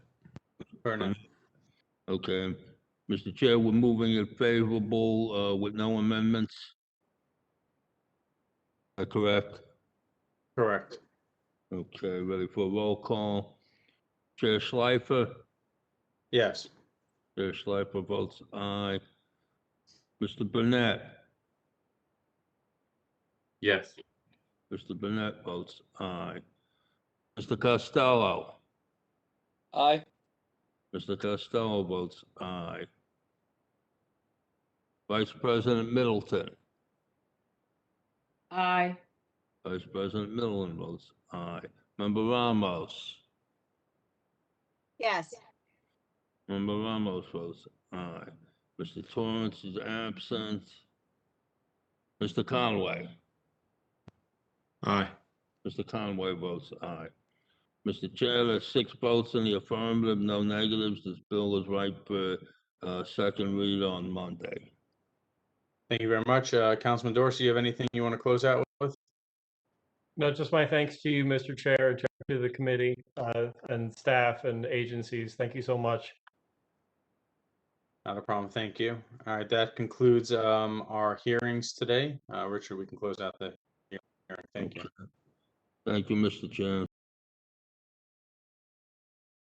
Fair enough. Okay. Mr. Chair, we're moving it favorable uh, with no amendments. Am I correct? Correct. Okay, ready for a roll call. Chair Schleifer? Yes. Chair Schleifer votes aye. Mr. Burnett? Yes. Mr. Burnett votes aye. Mr. Costello? Aye. Mr. Costello votes aye. Vice President Middleton? Aye. Vice President Middleton votes aye. Member Ramos? Yes, Member Ramos votes aye. Mr. Torrance is absent. Mr. Conway? Aye. Mr. Conway votes aye. Mr. Chair, there's six votes in the affirmative, no negatives. This bill is right for uh, second read on Monday. Thank you very much. Uh, Councilman Dorsey, you have anything you want to close out with? No, just my thanks to you, Mr. Chair, and to the committee, uh, and staff and agencies. Thank you so much. Not a problem. Thank you. All right, that concludes um, our hearings today. Uh, Richard, we can close out the hearing. Thank you. Thank you, Mr. Chair.